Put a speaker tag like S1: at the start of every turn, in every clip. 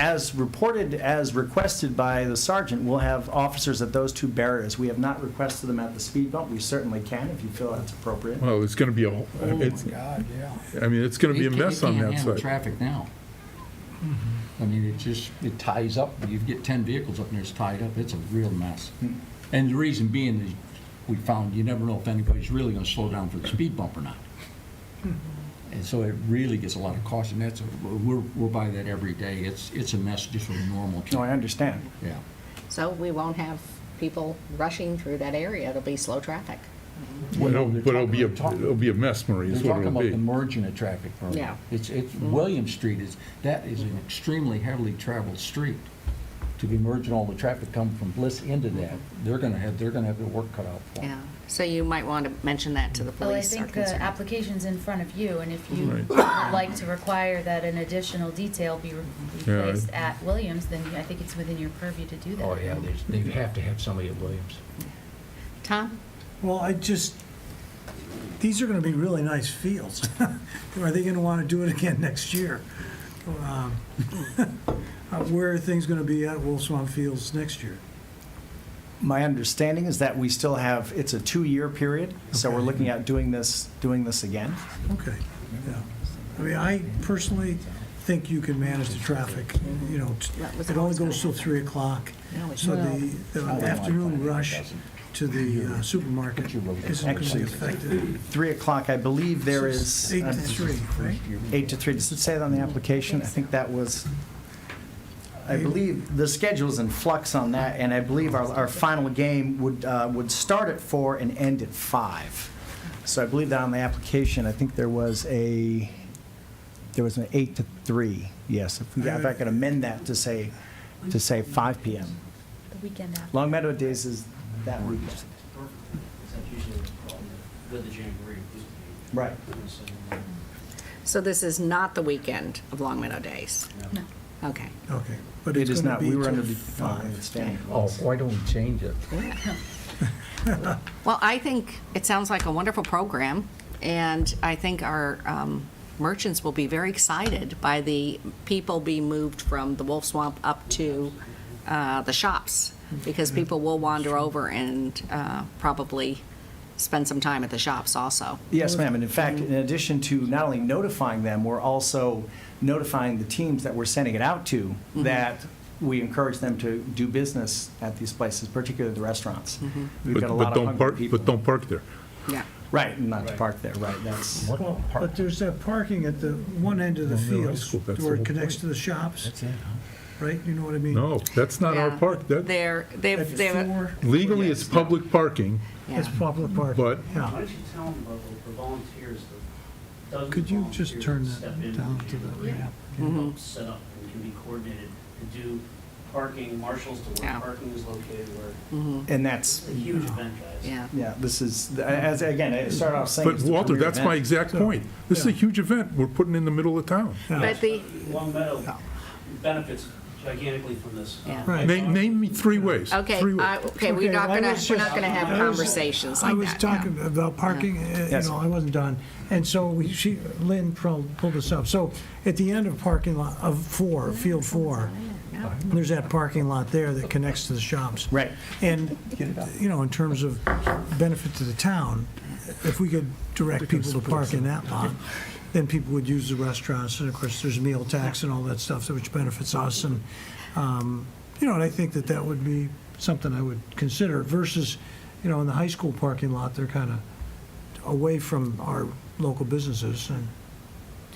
S1: as reported, as requested by the sergeant, we'll have officers at those two barriers. We have not requested them at the speed bump. We certainly can if you feel that's appropriate.
S2: Well, it's going to be a,
S1: Oh
S2: it's,
S3: God, yeah.
S2: I mean, it's going to be a
S4: It can't-
S2: mess on
S4: It
S2: that
S4: can't handle
S2: side.
S4: traffic now.
S1: Mm-hmm.
S4: I mean, it just, it ties up, you get 10 vehicles up there, it's tied up, it's a real mess.
S1: Mm-hmm.
S4: And the reason being is, we found, you never know if anybody's really gonna slow down for the speed bump or not.
S1: Mm-hmm.
S4: And so it really gets a lot of cost, and that's, we're, we're by that every day, it's, it's a mess just with normal
S1: No, I
S4: traffic,
S1: understand.
S4: yeah.
S5: So we won't have people rushing through that area. It'll be slow traffic.
S2: It'll-
S4: They're
S2: But it'll be, a
S4: talking-
S2: it'll be a mess, Marie, is
S4: They're
S2: what
S4: talking
S2: it'll
S4: about the
S2: be.
S4: merging of traffic. Maria.
S5: Yeah.
S4: It's, it's, William Street is, that is an extremely heavily traveled street. To be merging all the traffic coming from Bliss into that, they're gonna have, they're gonna have their work cut out for them.
S5: Yeah. So you might want to mention that to the
S6: Well, I
S5: police. or
S6: think uh, the
S5: concerned.
S6: application's in front of you, and if you
S2: Right.
S6: would like to require that an additional detail be re- be
S2: Yeah, I-
S6: placed at Williams, then I think it's within your purview to do that.
S7: Oh, yeah, there's- they have to have somebody at Williams.
S5: Tom?
S3: Well, I just, these are gonna be really nice fields. Are they gonna wanna do it again next year? Um, uh, Where are things gonna be at Wolf Swamp Fields next year?
S1: My understanding is that we still have, it's a two-year period, so we're
S3: Okay.
S1: looking at doing this, doing this again.
S3: Okay, yeah. I mean, I personally think you can manage the traffic, you know, t-
S5: That was
S3: it only
S5: always gonna
S3: goes till
S5: happen.
S3: 3 o'clock.
S5: No, it
S3: So the
S5: doesn't.
S3: the
S4: Well-
S3: afternoon rush to the uh, supermarket isn't gonna be
S1: Actually,
S3: affected.
S1: Three o'clock, I believe there is.
S3: Eight to three, right?
S1: Eight to three, does it say that on the application? I think that was, I
S3: Eight.
S1: believe, the schedule's in flux on that, and I believe our, our final game would, uh, would start at four and end at five. So I believe that on the application, I think there was a, there was an eight to three, yes. If we, if I could amend that to say, to say five PM.
S6: The weekend after.
S1: Long Meadow Days is that weekend.
S8: That's usually the problem with the Jamboree.
S1: Right.
S8: So, um,
S5: So this is not the weekend of Long Meadow Days?
S6: No.
S5: Okay.
S3: Okay, but
S1: It
S3: it's
S1: is
S3: gonna
S1: not,
S3: be
S1: we were under
S3: till
S1: the uh,
S3: five.
S1: understanding. it
S4: Oh,
S1: was.
S4: why don't we change it?
S5: Well, I think it sounds like a wonderful program, and I think our um, merchants will be very excited by the people being moved from the Wolf Swamp up to uh, the shops, because
S6: Mm-hmm.
S5: people will wander over and uh, probably spend some time at the shops also.
S1: Yes, ma'am, and in fact, in addition to not only notifying them, we're also notifying the teams that we're sending it out to that we encourage them to do business at these places, particularly the restaurants. We've
S2: But
S1: got a
S2: but
S1: lot of
S2: don't
S1: hungry
S2: park,
S1: people.
S2: but don't park there.
S5: Yeah.
S1: Right, and not to park there, right, that's,
S3: But there's that parking at the one end of the
S2: Long Meadow High
S3: fields
S2: School, that's the
S3: where it
S2: whole
S3: connects
S2: point.
S3: to the shops,
S4: That's it, huh?
S3: right? You know what I mean?
S2: No, that's not our
S5: Yeah.
S2: park. That,
S5: They're,
S3: At
S5: they've, they've,
S3: four,
S2: legally, it's public parking,
S5: yeah.
S3: it's public parking.
S2: but
S3: Yeah.
S8: Why don't you tell them about the- the volunteers, the dozens of
S3: Could you just
S8: volunteers
S3: turn
S8: that step
S3: that
S8: in
S3: down
S8: the
S3: to the
S8: Jamboree
S3: ramp?
S8: and help set up and can be coordinated and do parking, marshals to
S5: Yeah. Mm-hmm.
S8: where parking is located, where,
S1: and
S8: it's
S1: that's,
S8: a huge event, guys.
S5: yeah.
S1: yeah, this is, as, again, I started off saying.
S2: But
S1: it's the
S2: Walter,
S1: premier
S2: that's my
S1: event.
S2: exact point. This is a
S3: Yeah.
S2: huge event we're putting in the middle of town.
S5: But the,
S8: Long Meadow benefits gigantically from this.
S5: Yeah.
S3: Right.
S2: Name, name me three ways.
S5: okay,
S2: Three
S5: I-
S2: ways.
S5: okay, we're
S3: Okay,
S5: not
S3: I
S5: gonna,
S3: was
S5: we're
S3: just-
S5: not gonna have
S3: I was-
S5: conversations
S3: I
S5: like that.
S3: was
S5: yeah.
S3: talking about parking, uh, you
S1: Yes.
S3: know, I wasn't done. And so we- she, Lynn pro- pulled this up. So at the end of parking lot, of four, field four, there's that parking lot there that connects to the shops.
S1: Right.
S3: And, you know, in terms of benefit to the town, if we could direct people to park in that lot, then people would use the restaurants, and of course, there's meal tax and all that stuff, so which benefits us, and, um, you know, and I think that that would be something I would consider versus, you know, in the high school parking lot, they're kind of away from our local businesses, and,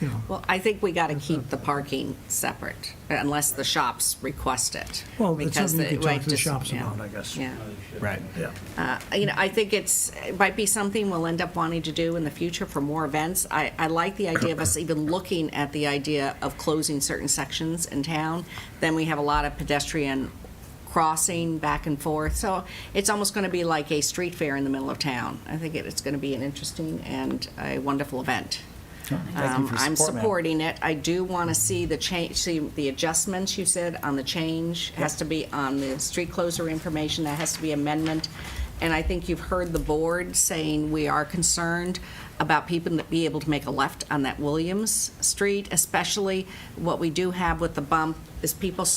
S3: you know,
S5: Well, I think we got to keep the parking separate, unless the shops request it.
S3: well, it's
S5: because
S3: something you could
S5: the-
S3: talk
S5: like,
S3: to the
S5: just-
S3: shops
S5: yeah,
S3: about, I guess.
S5: Yeah.
S1: Right.
S5: Uh, You know, I think it's, it might be something we'll end up wanting to do in the future for more events. I, I like the idea of us even looking at the idea of closing certain sections in town. Then we have a lot of pedestrian crossing back and forth. So it's almost going to be like a street fair in the middle of town. I think it- it's going to be an interesting and a wonderful event.
S1: Thank you
S5: Um,
S1: for
S5: I'm
S1: support, ma'am.
S5: supporting it. I do want to see the change, see the adjustments you said on the change, has to be on the street closer information, that has to be amendment. and I think you've heard the board saying we are concerned about people that be able to make a left on that Williams Street, especially what we do have with the bump is people